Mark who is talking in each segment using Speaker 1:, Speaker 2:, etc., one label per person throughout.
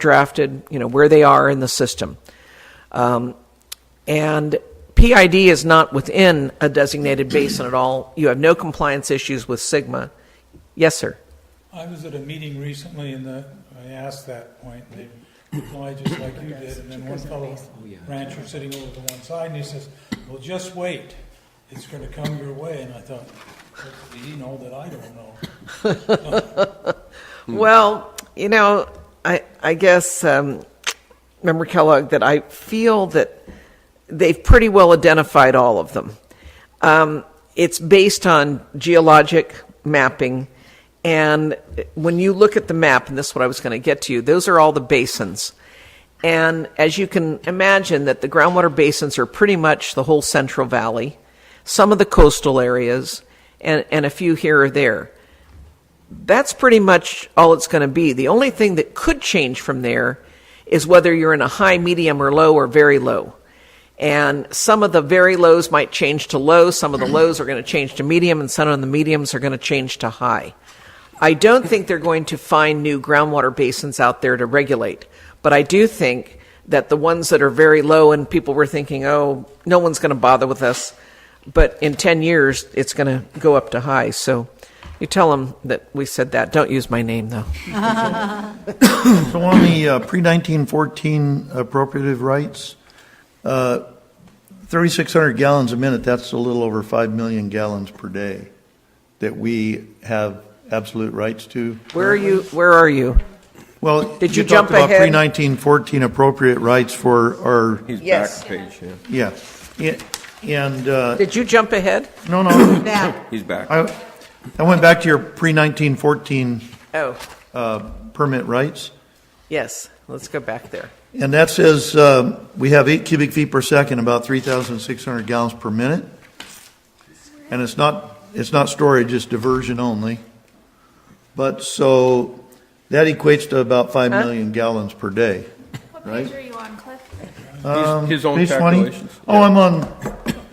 Speaker 1: overdrafted, you know, where they are in the system. Um, and PID is not within a designated basin at all. You have no compliance issues with Sigma. Yes, sir.
Speaker 2: I was at a meeting recently and the, I asked that point, and they replied just like you did, and then one fellow rancher sitting over to one side, and he says, well, just wait, it's gonna come your way, and I thought, what did he know that I don't know?
Speaker 1: Well, you know, I, I guess, um, Member Kellogg, that I feel that they've pretty well identified all of them. Um, it's based on geologic mapping. And when you look at the map, and this is what I was going to get to you, those are all the basins. And as you can imagine, that the groundwater basins are pretty much the whole Central Valley, some of the coastal areas, and, and a few here or there that's pretty much all it's going to be. The only thing that could change from there is whether you're in a high, medium, or low, or very low. And some of the very lows might change to low, some of the lows are going to change to medium, and some of the mediums are going to change to high. I don't think they're going to find new groundwater basins out there to regulate, but I do think that the ones that are very low and people were thinking, oh, no one's going to bother with us, but in 10 years, it's going to go up to high. So you tell them that we said that. Don't use my name, though.
Speaker 3: So on the uh, pre-1914 appropriative rights, uh, 3,600 gallons a minute, that's a little over 5 million gallons per day that we have absolute rights to.
Speaker 1: Where are you? Where are you?
Speaker 3: Well,
Speaker 1: Did you
Speaker 3: you
Speaker 1: jump
Speaker 3: talked about
Speaker 1: ahead?
Speaker 3: pre-1914 appropriate rights for our,
Speaker 4: He's
Speaker 1: Yes.
Speaker 4: back page, yeah.
Speaker 3: yeah. Yeah, And, uh,
Speaker 1: Did you jump ahead?
Speaker 3: no, no,
Speaker 5: Back.
Speaker 4: He's back.
Speaker 3: I I went back to your pre-1914
Speaker 1: Oh,
Speaker 3: permit rights.
Speaker 1: yes. Let's go back there.
Speaker 3: And that says, uh, we have eight cubic feet per second, about 3,600 gallons per minute. And it's not, it's not storage, it's diversion only. But so that equates to about 5 million gallons per day.
Speaker 6: What
Speaker 3: Right?
Speaker 6: page are you on, Cliff?
Speaker 3: Um,
Speaker 4: His, his own
Speaker 3: page 20?
Speaker 4: calculations.
Speaker 3: Oh, I'm on,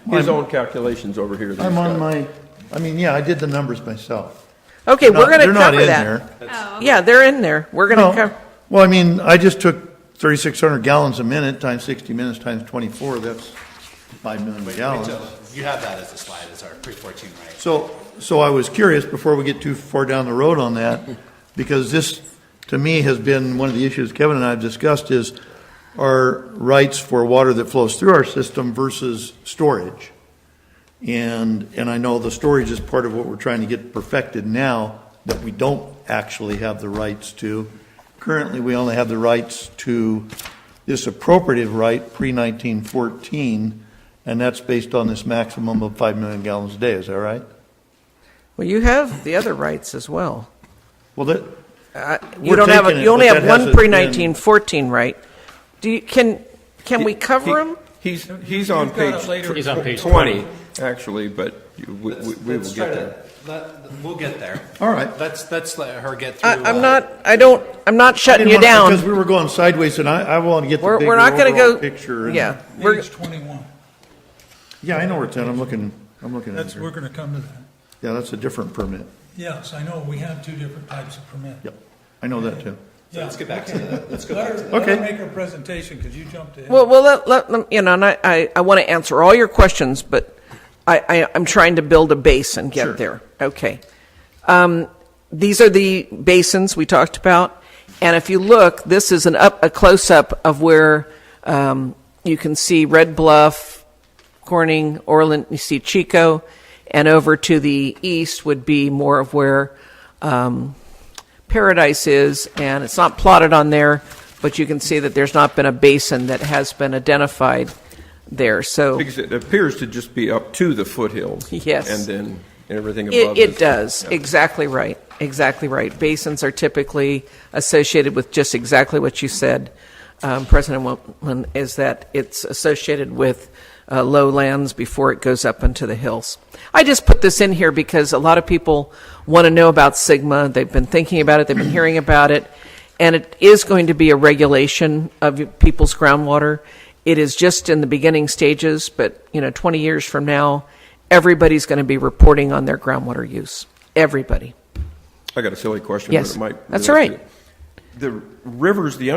Speaker 4: Yeah. His own calculations over here. that
Speaker 3: I'm
Speaker 4: he's
Speaker 3: on
Speaker 4: got.
Speaker 3: my, I mean, yeah, I did the numbers myself.
Speaker 1: Okay,
Speaker 3: Not-
Speaker 1: we're going to
Speaker 3: they're
Speaker 1: cover
Speaker 3: not in
Speaker 1: that.
Speaker 3: there.
Speaker 6: Oh, okay.
Speaker 1: Yeah, they're in there. We're going to
Speaker 3: No.
Speaker 1: cover.
Speaker 3: Well, I mean, I just took 3,600 gallons a minute times 60 minutes times 24, that's 5 million gallons.
Speaker 7: So you have that as a slide, as our pre-14, right?
Speaker 3: So, so I was curious, before we get too far down the road on that, because this, to me, has been one of the issues Kevin and I have discussed is our rights for water that flows through our system versus storage. And, and I know the storage is part of what we're trying to get perfected now, that we don't actually have the rights to. Currently, we only have the rights to this appropriative right pre-1914, and that's based on this maximum of 5 million gallons a day, is that right?
Speaker 1: Well, you have the other rights as well.
Speaker 3: Well, that,
Speaker 1: Uh, you
Speaker 3: We're
Speaker 1: don't have. A,
Speaker 3: taking it,
Speaker 1: you only
Speaker 3: but
Speaker 1: have
Speaker 3: that
Speaker 1: one
Speaker 3: hasn't
Speaker 1: pre
Speaker 3: been-
Speaker 1: nineteen fourteen right. Do you, can can we cover
Speaker 4: He-
Speaker 1: them?
Speaker 4: He's, he's on
Speaker 2: You've got it
Speaker 4: page
Speaker 2: later. He's
Speaker 4: tw- 20, actually, but you- we, we we will
Speaker 7: Let's try
Speaker 4: get
Speaker 7: to-
Speaker 4: there.
Speaker 7: let- We'll get there.
Speaker 3: all right.
Speaker 7: Let's, let's let her get through.
Speaker 1: I, I'm
Speaker 7: uh,
Speaker 1: not. I don't. I'm not shutting you
Speaker 3: Because
Speaker 1: down.
Speaker 3: we were going sideways, and I, I want to get the
Speaker 1: We're,
Speaker 3: bigger
Speaker 1: we're not going to
Speaker 3: overall
Speaker 1: go.
Speaker 3: picture. and-
Speaker 1: yeah, we're,
Speaker 2: Page twenty-one,
Speaker 3: Yeah, I know where it's at, I'm looking, I'm looking at it
Speaker 2: that's, we're
Speaker 3: here.
Speaker 2: gonna come to that.
Speaker 3: Yeah, that's a different permit.
Speaker 2: Yes, I know, we have two different types of permit.
Speaker 3: Yep, I know that too.
Speaker 2: Yeah,
Speaker 7: Let's get back to the, let's go
Speaker 2: Let
Speaker 7: back
Speaker 2: her,
Speaker 7: to the.
Speaker 2: let her
Speaker 3: Okay.
Speaker 2: make her presentation, because you jumped ahead.
Speaker 1: Well, well, let, let, let- you know, and I, I, I want to answer all your questions, but I, I, I'm trying to build a base and get
Speaker 3: Sure.
Speaker 1: there. Okay. Um, these are the basins we talked about. And if you look, this is an up, a close up of where um, you can see Red Bluff, Corning, Orland, you see Chico, and over to the east would be more of where um, Paradise is, and it's not plotted on there, but you can see that there's not been a basin that has been identified there. So it,
Speaker 4: Because it appears to just be up to the foothills.
Speaker 1: Yes.
Speaker 4: And then everything above.
Speaker 1: it
Speaker 4: is-
Speaker 1: does.
Speaker 4: yeah.
Speaker 1: Exactly right. Exactly right. Basins are typically associated with just exactly what you said, um, President Wilman, is that it's associated with uh, lowlands before it goes up into the hills. I just put this in here because a lot of people want to know about Sigma. They've been thinking about it, they've been hearing about it. and it is going to be a regulation of people's groundwater. It is just in the beginning stages, but you know, 20 years from now, everybody's going to be reporting on their groundwater use. Everybody.
Speaker 4: I got a silly question.
Speaker 1: Yes.
Speaker 4: but it might
Speaker 1: That's
Speaker 4: relate
Speaker 1: all right.
Speaker 4: to it. The rivers, the